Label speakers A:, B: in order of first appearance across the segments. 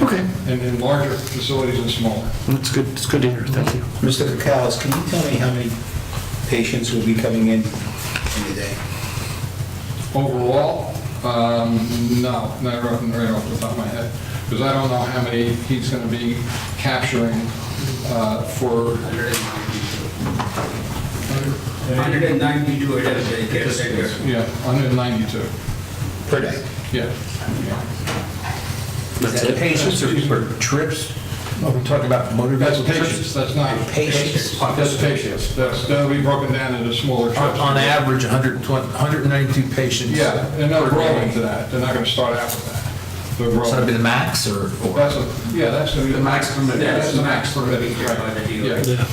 A: Okay,
B: in, in larger facilities and smaller.
A: that's good, it's good to hear, thank you.
C: Mr. Kakalas, can you tell me how many patients will be coming in in a day?
B: Overall, um, no, not right right off the top of my head, because I don't know how many he's going to be capturing uh, for,
D: 192 it is, they can't take it.
B: yeah, 192,
C: Per day?
B: yeah.
A: That's
C: Is that
A: it.
C: Patients or or trips? Are we talking about motor
B: That's
C: vessel
B: patients,
C: trips?
B: that's not.
C: Patients.
B: That's patients, that's, that'll be broken down into smaller trips.
E: On average, 120 192 patients.
B: Yeah, they're not
E: per
B: growing
E: day.
B: to that, they're not going to start out with that. They're
E: So that'd be
B: growing.
E: the max, or? or-
B: That's, a- yeah, that's going to be. The max permitted.
D: Yeah,
B: That's the max permitted,
D: By the
B: right,
D: DOT.
B: yeah.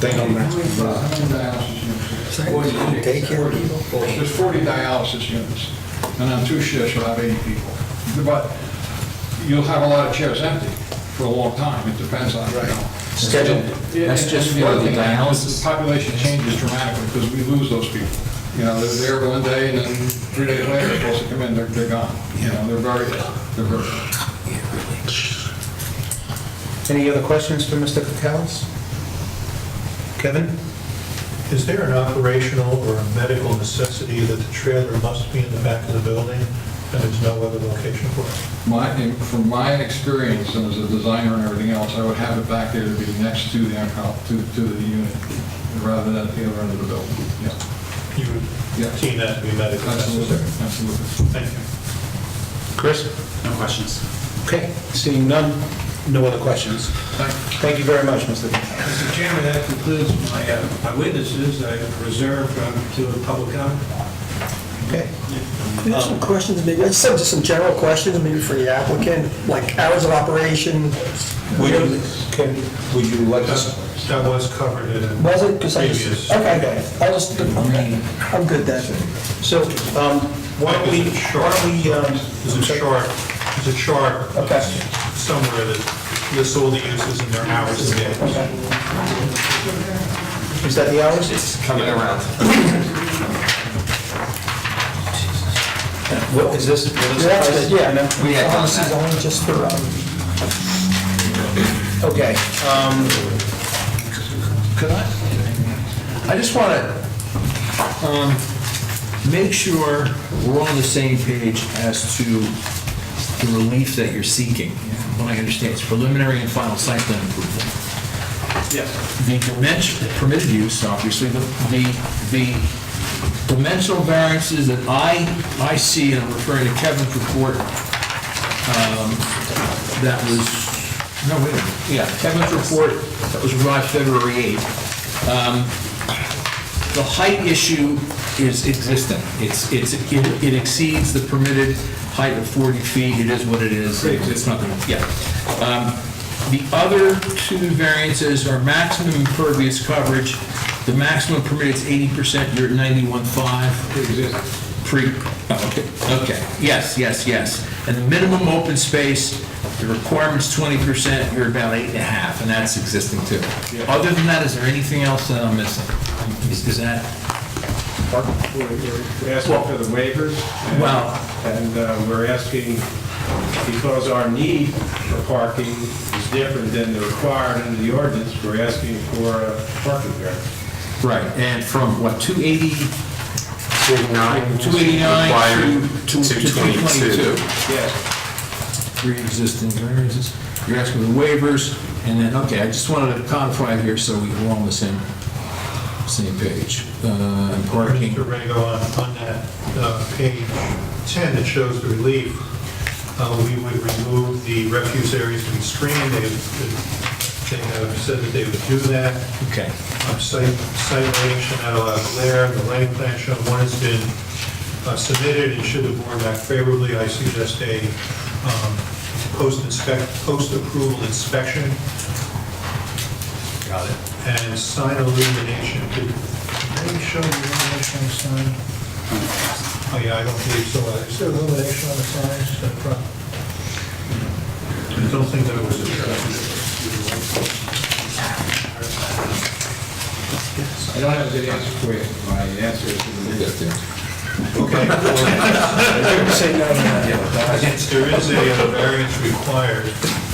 C: They don't
B: How many
C: know.
B: dialysis units? There's 40 dialysis units, and on two shifts, you'll have 80 people. But you'll have a lot of chairs empty for a long time, it depends on, you know.
C: Scheduled.
B: Yeah,
E: That's
B: and-
E: just
B: and the
E: for
B: other
E: the
B: thing,
E: dialysis?
B: the Population changes dramatically, because we lose those people. You know, they're there one day, and then three days later, they're supposed to come in, they're, they're gone. You know, they're very, they're very...
C: Any other questions for Mr. Kakalas? Kevin?
F: Is there an operational or a medical necessity that the trailer must be in the back of the building and there's no other location for it?
B: My, in- from my experience and as a designer and everything else, I would have it back there to be next to the, onco- to, to the unit, rather than at the other end of the building. Yeah,
F: You
B: Yeah.
F: would deem that to be medically
B: absolutely,
F: necessary?
B: absolutely.
F: Thank you.
C: Chris?
G: No questions.
C: Okay, seeing none, no other questions. Thank you very much, Mr. Kakalas.
H: Mr. Chairman, that concludes my uh, my witnesses. I reserve um, to a public comment.
C: Okay.
I: We have some questions, maybe, I just have just some general questions, maybe for the applicant, like hours of operation,
C: Would you, can, would you like us?
F: That that was covered in...
I: was it? 'Cause I just-
F: Previous.
I: Okay, I just, okay, I'm good then.
C: So, um, why don't we, why don't we, um...
F: There's a chart, there's a chart
C: Okay.
F: somewhere that lists all the uses and their hours and days.
C: Is that the hours?
G: It's coming around.
C: What is this?
I: That's good, yeah,
G: We had done
I: This is
G: that.
I: Oh, only just for, um,
C: Okay, um,
E: Could I? I just want to make sure we're on the same page as to the relief that you're seeking. What I understand is preliminary and final site plan approval. Yes. The dimension, the permitted use, obviously, the, the the dimensional variances that I, I see, and I'm referring to Kevin's report, um, that was, no, wait a minute, yeah, Kevin's report, that was arrived February 8th. The height issue is existing. It's, it's, it it exceeds the permitted height of 40 feet. It is what it is. It's not, gonna- yeah. Um, The other two variances are maximum impervious coverage. The maximum permitted is 80%, you're at 91.5. Pre, oh, okay, okay, yes, yes, yes. And the minimum open space, the requirement's 20%, you're about eight and a half, and that's existing too. Other than that, is there anything else that I'm missing? Is is that?
H: We're we're asking for the waivers. and-
E: Wow.
H: And uh, we're asking, because our need for parking is different than the required under the ordinance, we're asking for a parking variance.
E: Right, and from what, 280? 289 to- to 222.
H: Yes,
E: Pre-existing variances. You're asking for waivers, and then, okay, I just wanted to codify here so we we're all on the same, same page. Uh, and Parking.
F: Mr. Rego, on, on that uh, page 10 that shows the relief, uh, we would remove the refuse areas to be screened. They have they have said that they would do that.
E: Okay.
F: Um, Site, site lighting should not allow glare. The lighting plan shown, one has been uh, submitted, and should the board act favorably, I suggest a um, post-inspect, post-approval inspection Got it. And sign illumination, did they show the illumination on the sign? Oh, yeah, I don't believe so. Is there illumination on the sign? Is that a problem? I don't think that was a...
B: I don't have a good answer for you. My answer is,
F: Okay. well,
C: Say no to that.
F: There is a uh, variance required